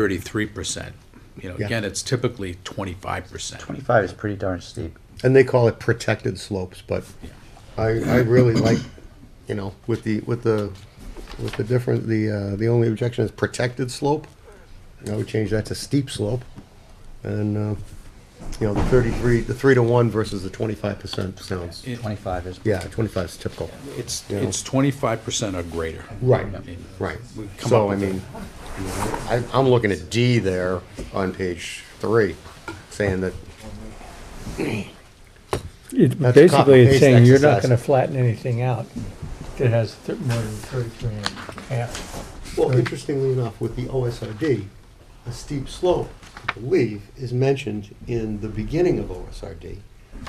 thirty-three percent. You know, Yeah. again, it's typically twenty-five percent. 25 is pretty darn steep. and they call it protected slopes, but I, I really like, you know, with the, with the, with the different, the, uh, the only objection is protected slope. I would change that to steep slope, and, uh, you know, the thirty-three, the three to one versus the twenty-five percent sounds, 25 is. yeah, twenty-five is typical. It's, Yeah. it's twenty-five percent or greater. Right, I mean, right. we come up So, I with mean, you know, I, I'm looking at D there on page three, saying that, It, That's a basically, it's copy-paste saying you're not exercise. gonna flatten anything out that has thir- more than thirty-three and a half. Well, interestingly enough, with the OSRD, a steep slope, I believe, is mentioned in the beginning of OSRD.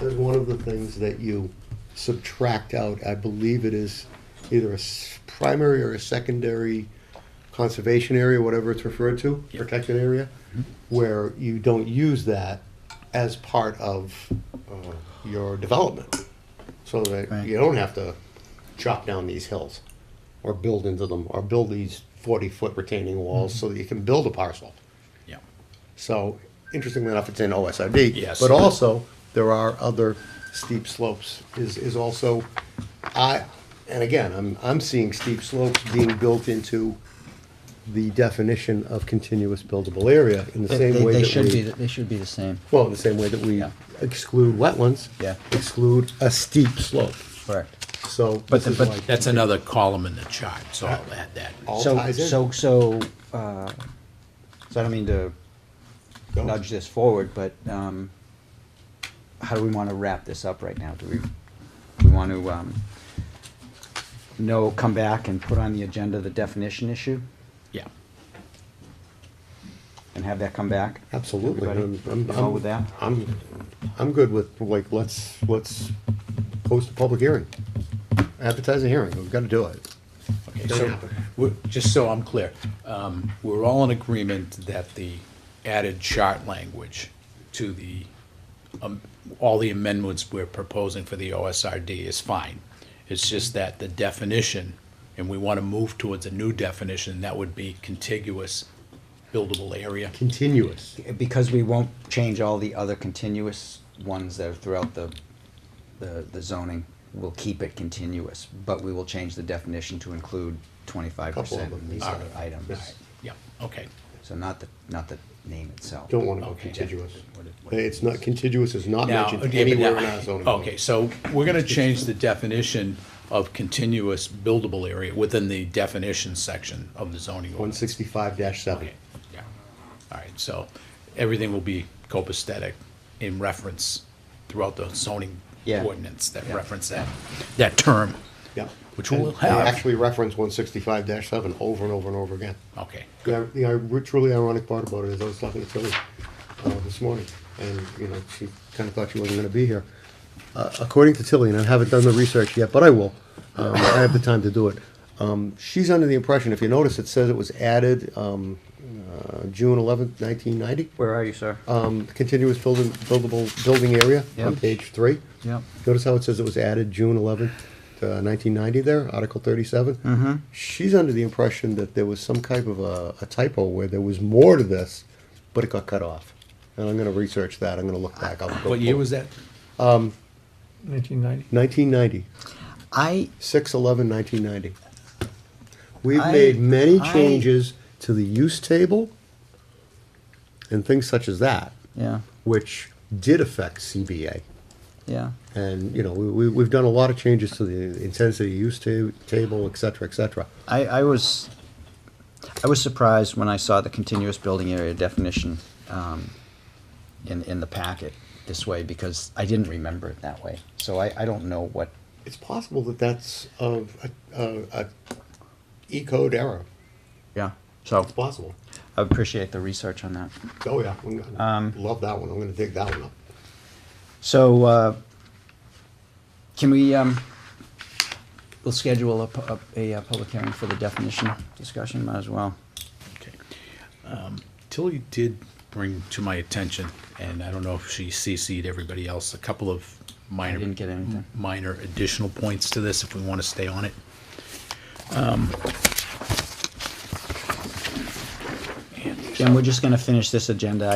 That's one of the things that you subtract out. I believe it is either a s- primary or a secondary conservation area, whatever it's referred to, protected area, where you don't use that as part of uh, your development. So that Right. you don't have to chop down these hills or build into them or build these 40 foot retaining Mm-hmm. walls so that you can build a parcel. Yeah, So, interestingly enough, it's in OSRD. Yes. But also, there are other steep slopes is, is also, I, and again, I'm, I'm seeing steep slopes being built into the definition of continuous buildable area in the They, same they- way they that should be, we. the- they should be the same. Well, in the same way that we Yeah. exclude wetlands. Yeah. Exclude a steep slope. Correct. So But this the- is but- like that's another column in the chart, so I'll add that. all so, ties in. so, so, uh, so I don't mean to Go. nudge this forward, but um, how do we want to wrap this up right now? Do we, do we want to um, no come back and put on the agenda the definition issue Yeah, and have that come back? Absolutely. Everybody, I'm- I'm- you all with that? I'm, I'm good with, like, let's, let's post a public hearing. Advertise a hearing, we've gotta do it. okay, Doesn't so, happen. we're- just so I'm clear, um, we're all in agreement that the added chart language to the, um, all the amendments we're proposing for the OSRD is fine. It's just that the definition, and we want to move towards a new definition, that would be contiguous buildable area. Continuous. Because we won't change all the other continuous ones that are throughout the, the, the zoning, we'll keep it continuous, but we will change the definition to include twenty-five Couple of percent them. of these other items. Yeah, okay. So not the, not the name itself. Don't wanna go Okay. contiguous. What it- what it It's not, contiguous is not Now, mentioned okay, but anywhere now- in our zoning. code. Okay, so we're gonna change the definition of continuous buildable area within the definition section of the zoning One ordinance. sixty-five seven. Okay, yeah. All right, so everything will be copacetic in reference throughout the zoning Yeah. ordinance that Yeah. reference that, that term. Yeah. Which we'll And have. They actually reference one sixty-five seven over and over and over again. Okay, The, ir- the ir- truly ironic part about it is I was talking to Tilly uh, this morning, and, you know, she kind of thought she wasn't gonna be here. Uh, According to Tilly, and I haven't done the research yet, but I will, um, I have the time to do it. Um, She's under the impression, if you notice, it says it was added um, uh, June eleventh, nineteen ninety, Where are you, sir? Um, continuous building, buildable, building area on Yeah. page three. Yeah. Notice how it says it was added June eleventh, uh, nineteen ninety there, Article 37 Mm-hmm. She's under the impression that there was some type of a a typo where there was more to this, but it got cut off. And I'm gonna research that, I'm gonna look back. what year was that? Nineteen ninety. Nineteen ninety, I, six eleven nineteen ninety. We've I- made many I- changes to the use table and things such as that, yeah, which did affect CBA. yeah. And, you know, we, we- we've done a lot of changes to the intensity use ta- table, et cetera, et cetera. I, I was, I was surprised when I saw the continuous building area definition, um, in, in the packet this way, because I didn't remember it that way. So I, I don't know what, It's possible that that's of a, a, a E code error. yeah, so. It's possible. I appreciate the research on that. Oh, yeah. I'm gonna- Love that one. I'm gonna dig that one up. So, uh, can we, um, we'll schedule a, pu- a, a public hearing for the definition discussion, might as well. Okay. Um, Tilly did bring to my attention, and I don't know if she CC'd everybody else, a couple of minor. didn't get anything. Minor additional points to this, if we want to stay on it. Um, and Then we're just gonna finish this agenda